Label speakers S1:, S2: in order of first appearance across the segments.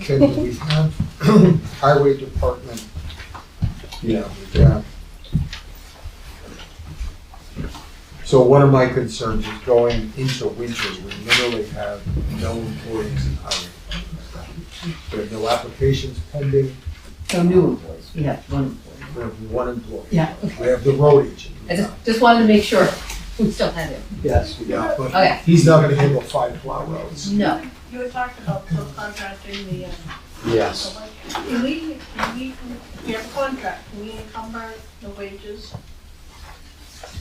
S1: Can we have highway department? Yeah, yeah. So one of my concerns is going into winter, we literally have no employees in highway. department. We have no applications pending,
S2: So new employees, we have one employee.
S1: we have one employee.
S2: Yeah,
S1: We have the road agent.
S2: I just, just wanted to make sure we still had him.
S1: Yes. Yeah, but
S2: Okay.
S1: he's not gonna handle five plow roads.
S2: No,
S3: You had talked about subcontracting the, uh,
S1: Yes.
S3: do we, do we, we have a contract, do we encumber the wages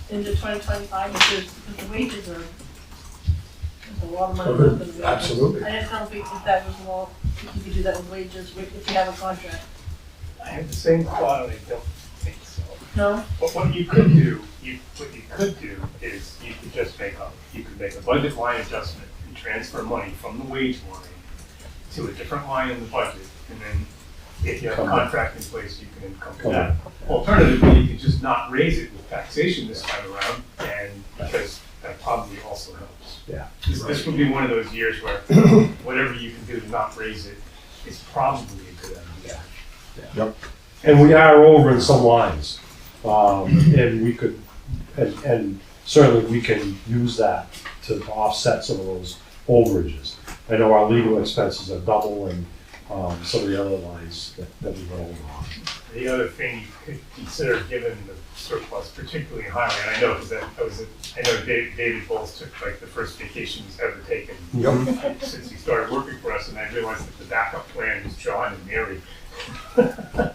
S3: into twenty twenty-five, because because the wages are, there's a lot of money. left in the wages.
S1: Absolutely.
S3: I didn't know if we- if that was all, if you could do that with wages, if you have a contract,
S4: I have the same thought, and I don't think so.
S3: no?
S4: But what you could do, you, what you could do is you could just make a, you could make a budget line adjustment and transfer money from the wage line to a different line in the budget, and then if you have a contract in place, you can encumber that. Alternatively, you could just not raise it with taxation this time around, and because that probably also helps.
S5: Yeah.
S4: This, this would be one of those years where whatever you can do to not raise it is probably a good idea.
S5: And we are over in some lines, um, and we could, and, and certainly we can use that to offset some of those overages. I know our legal expenses are double and, um, some of the other lines that, that we went over on.
S4: The other thing you could consider, given the surplus, particularly in highway, and I know because I was, I know David, David Bowles took like the first vacation he's ever taken
S1: Yep.
S4: since he started working for us, and I realized that the backup plan was John and Mary.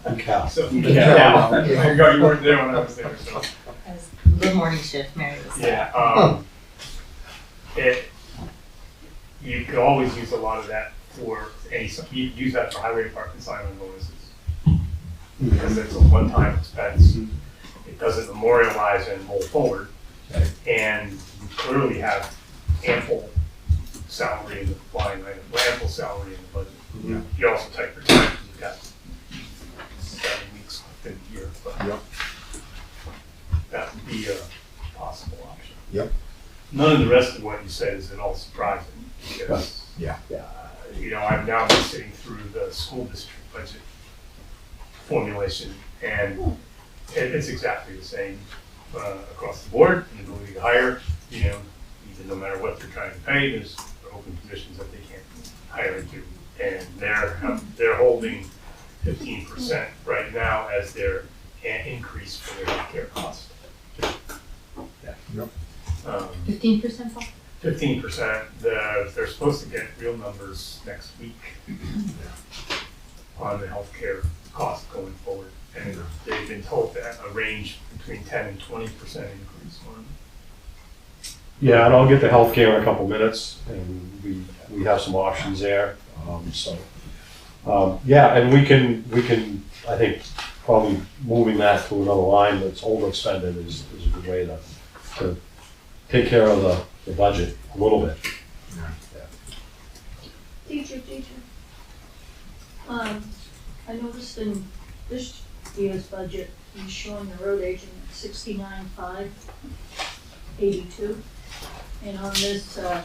S5: And Cal.
S4: So,
S1: Yeah.
S4: yeah, I forgot you weren't there when I was there, so.
S6: The morning shift, Mary was there.
S4: Yeah, um, it, you could always use a lot of that for any, you use that for highway department sign-on bonuses. Because it's a one-time expense, it doesn't memorialize and roll forward. And you clearly have ample salary in the line item, or ample salary in the budget. You also take your time, you've got seven weeks within the year,
S1: Yep.
S4: but that would be a possible option.
S1: Yep.
S4: None of the rest of what you said is at all surprising, because.
S1: Yeah.
S5: Yeah.
S4: You know, I'm now been sitting through the school district budget formulation, and it, it's exactly the same, uh, across the board, the ability to hire, you know, even no matter what they're trying to pay, there's open positions that they can't hire into. And they're, they're holding fifteen percent right now as their an- increase for their healthcare costs. Um,
S1: Yep.
S2: fifteen percent off?
S4: Fifteen percent, the, they're supposed to get real numbers next week on the healthcare cost going forward. And they've been told that a range between ten and twenty percent increase on
S5: Yeah, and I'll get the healthcare in a couple minutes, and we, we have some options there, um, so. Um, yeah, and we can, we can, I think, probably moving that to another line that's overexpended is, is a good way to, to take care of the, the budget a little bit.
S3: Teacher, teacher. Um, I noticed in this year's budget, he's showing the road agent sixty-nine five eighty-two. And on this, uh,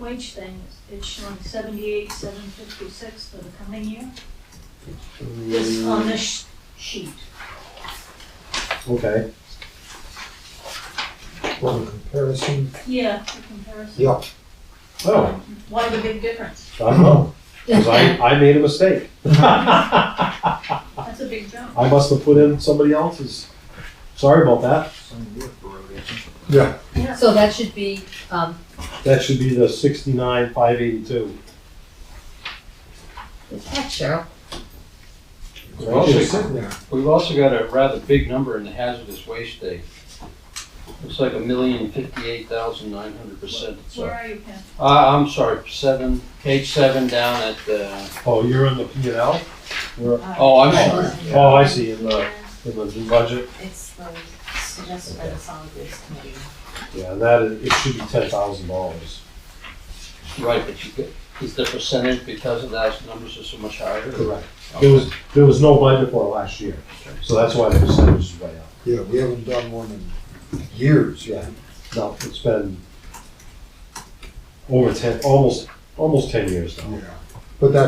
S3: wage thing, it's showing seventy-eight seven fifty-six for the coming year. This, on this sheet.
S5: Okay,
S1: For the comparison,
S3: Yeah, for comparison.
S1: yeah,
S5: oh,
S3: Why the big difference?
S5: I don't know, 'cause I, I made a mistake. I
S3: That's a big jump.
S5: must have put in somebody else's, sorry about that,
S1: yeah,
S2: So that should be, um,
S5: that should be the sixty-nine, five eighty-two.
S2: the tax, Cheryl.
S1: we're all just sitting there.
S7: We've also got a rather big number in the hazardous waste day. Looks like a million fifty-eight thousand nine hundred percent.
S3: Where are you, Pam?
S7: Uh, I'm sorry, seven, page seven down at, uh,
S5: Oh, you're in the P and L?
S7: oh, I'm sorry.
S5: Oh, I see, in the, in the new budget,
S6: Uh, It's the suggested by the solid waste committee.
S5: yeah, and that is, it should be ten thousand dollars.
S7: Right, but you get, is the percentage because of that, numbers are so much higher?
S5: Correct. There was, there was no budget for it last year, so that's why the percentage is way up.
S1: Yeah, we haven't done one in years.
S5: Yeah, no, it's been over ten, almost, almost ten years now.
S1: Yeah. But that